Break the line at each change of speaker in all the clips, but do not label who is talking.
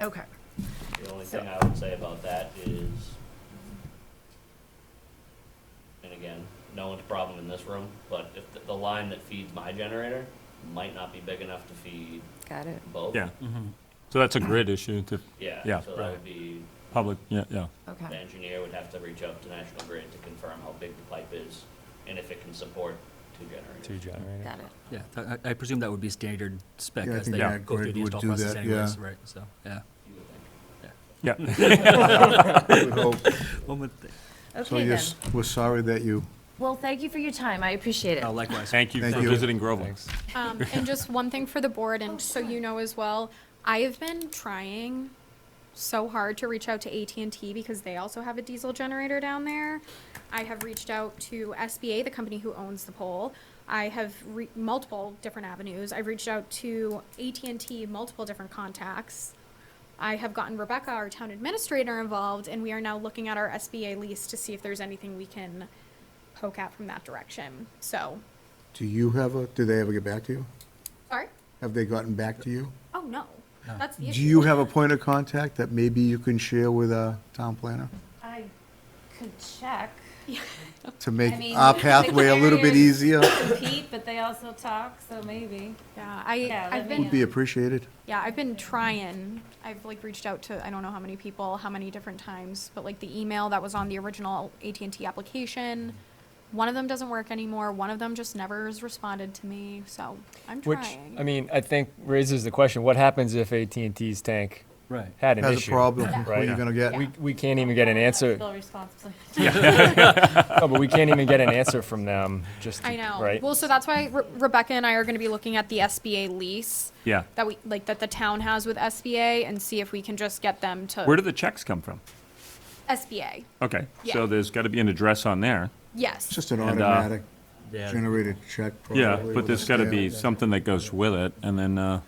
Okay.
The only
So-
thing I would say about that is, and again, no one's problem in this room, but if the, the line that feeds my generator might not be big enough to feed
Got it.
both.
Yeah.
Mm-hmm.
So that's a grid issue to
Yeah,
Yeah.
so that
Right.
would be,
public, yeah, yeah.
the
Okay.
engineer would have to reach out to National Grid to confirm how big the pipe is and if it can support two
Two
generators.
generators.
Got it.
Yeah, tha- I I presume that would be standard spec
Yeah, I
as
think
they
Yeah.
go through
Grid
the
would
install
do
process
that,
anyways,
yeah.
right, so, yeah.
You would think.
Yeah,
I would hope.
One would think.
So
Okay then.
yes, we're sorry that you,
Well, thank you for your time. I appreciate it.
Oh, likewise.
thank you
Thank
for
you.
visiting Groveland.
Um, and just one thing for the board, and so you know as well, I have been trying so hard to reach out to AT&T because they also have a diesel generator down there. I have reached out to SBA, the company who owns the pole. I have re- multiple different avenues. I've reached out to AT&T, multiple different contacts. I have gotten Rebecca, our town administrator, involved, and we are now looking at our SBA lease to see if there's anything we can poke at from that direction. So,
do you have a, did they ever get back to you?
sorry?
Have they gotten back to you?
Oh, no. That's the
Do
issue.
you have a point of contact that maybe you can share with a town planner
I could check.
to make
I mean,
our
the
pathway a little bit
carriers-
easier?
compete, but they also talk, so maybe.
Yeah, I,
Yeah,
I've
let me
been,
Would be appreciated.
yeah, I've been trying. I've like reached out to, I don't know how many people, how many different times, but like the email that was on the original AT&T application, one of them doesn't work anymore. One of them just never has responded to me, so I'm
Which,
trying.
I mean, I think raises the question, what happens if AT&T's tank
Right.
had an issue?
Has a problem, what are
Right.
you gonna get?
We, we can't even get an answer,
Still responsible.
no, but we can't even get an answer from them, just,
I know.
right?
Well, so that's why Re- Rebecca and I are going to be looking at the SBA lease
Yeah.
that we, like, that the town has with SBA and see if we can just get them to.
Where do the checks come from?
SBA,
Okay,
Yeah.
so there's got to be an address on there.
yes.
It's just an
And, uh,
automatic
Yeah.
generated check.
Yeah,
probably,
but
with
there's
a
got to
stamp.
be something that goes with it, and then uh,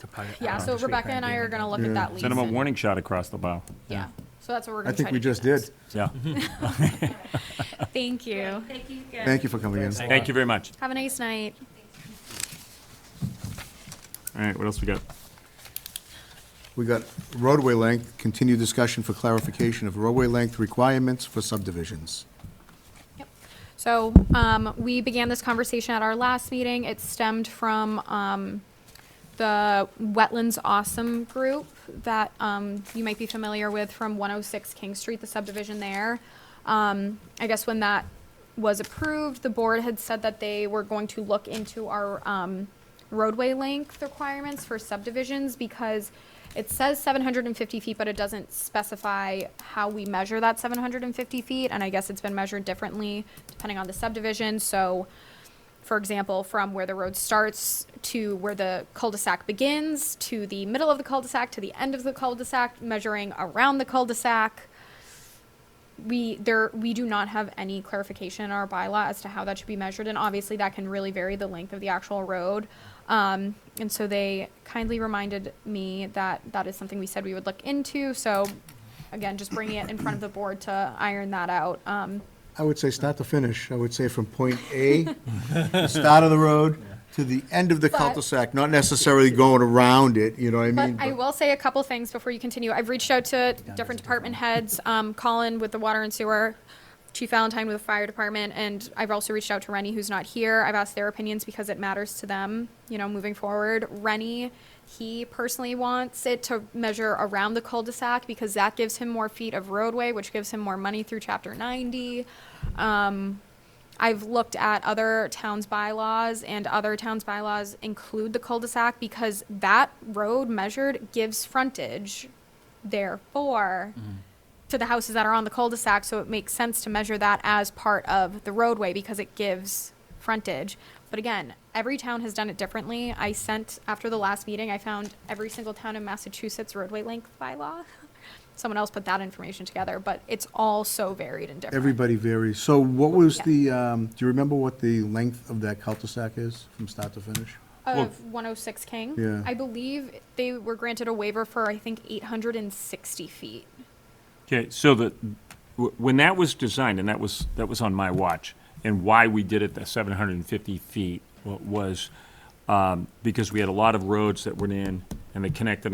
Topogra-
Yeah,
uh,
so
street
Rebecca and I
plan.
are gonna look
Yeah.
at that lease.
send them a
and-
warning shot across the bow.
Yeah, so that's what we're
I
gonna try
think
to
we
do
just did.
next.
Yeah,
Thank you.
Thank you guys.
Thank you for coming in.
thank you very much.
Have a nice night.
All right, what else we got?
We got roadway length, continued discussion for clarification of roadway length requirements for subdivisions.
So, um, we began this conversation at our last meeting. It stemmed from, um, the Wetlands Awesome group that, um, you might be familiar with from one oh six King Street, the subdivision there. Um, I guess when that was approved, the board had said that they were going to look into our, um, roadway length requirements for subdivisions because it says seven hundred and fifty feet, but it doesn't specify how we measure that seven hundred and fifty feet, and I guess it's been measured differently depending on the subdivision, so for example, from where the road starts to where the cul-de-sac begins, to the middle of the cul-de-sac, to the end of the cul-de-sac, measuring around the cul-de-sac. We, there, we do not have any clarification in our bylaw as to how that should be measured, and obviously that can really vary the length of the actual road. Um, and so they kindly reminded me that that is something we said we would look into, so again, just bringing it in front of the board to iron that out. Um,
I would say start to finish. I would say from point A, the start of the road, to the end of the
But-
cul-de-sac, not necessarily going around it, you know what I
But
mean?
I will say a couple things before you continue. I've reached out to different department heads, um, Colin with the water and sewer, Chief Valentine with the fire department, and I've also reached out to Rennie, who's not here. I've asked their opinions because it matters to them, you know, moving forward. Rennie, he personally wants it to measure around the cul-de-sac because that gives him more feet of roadway, which gives him more money through chapter ninety. Um, I've looked at other towns' bylaws, and other towns' bylaws include the cul-de-sac because that road measured gives frontage, therefore, to the houses that are on the cul-de-sac, so it makes sense to measure that as part of the roadway because it gives frontage. But again, every town has done it differently. I sent, after the last meeting, I found every single town in Massachusetts roadway length bylaw. Someone else put that information together, but it's all so varied and different.
Everybody varies. So what was
Yeah.
the, um, do you remember what the length of that cul-de-sac is from start to finish?
of 106 King.
Yeah.
I believe they were granted a waiver for, I think, 860 feet.
Okay, so the, w- when that was designed, and that was, that was on my watch, and why we did it the seven hundred and fifty feet wa- was, um, because we had a lot of roads that went in and they connected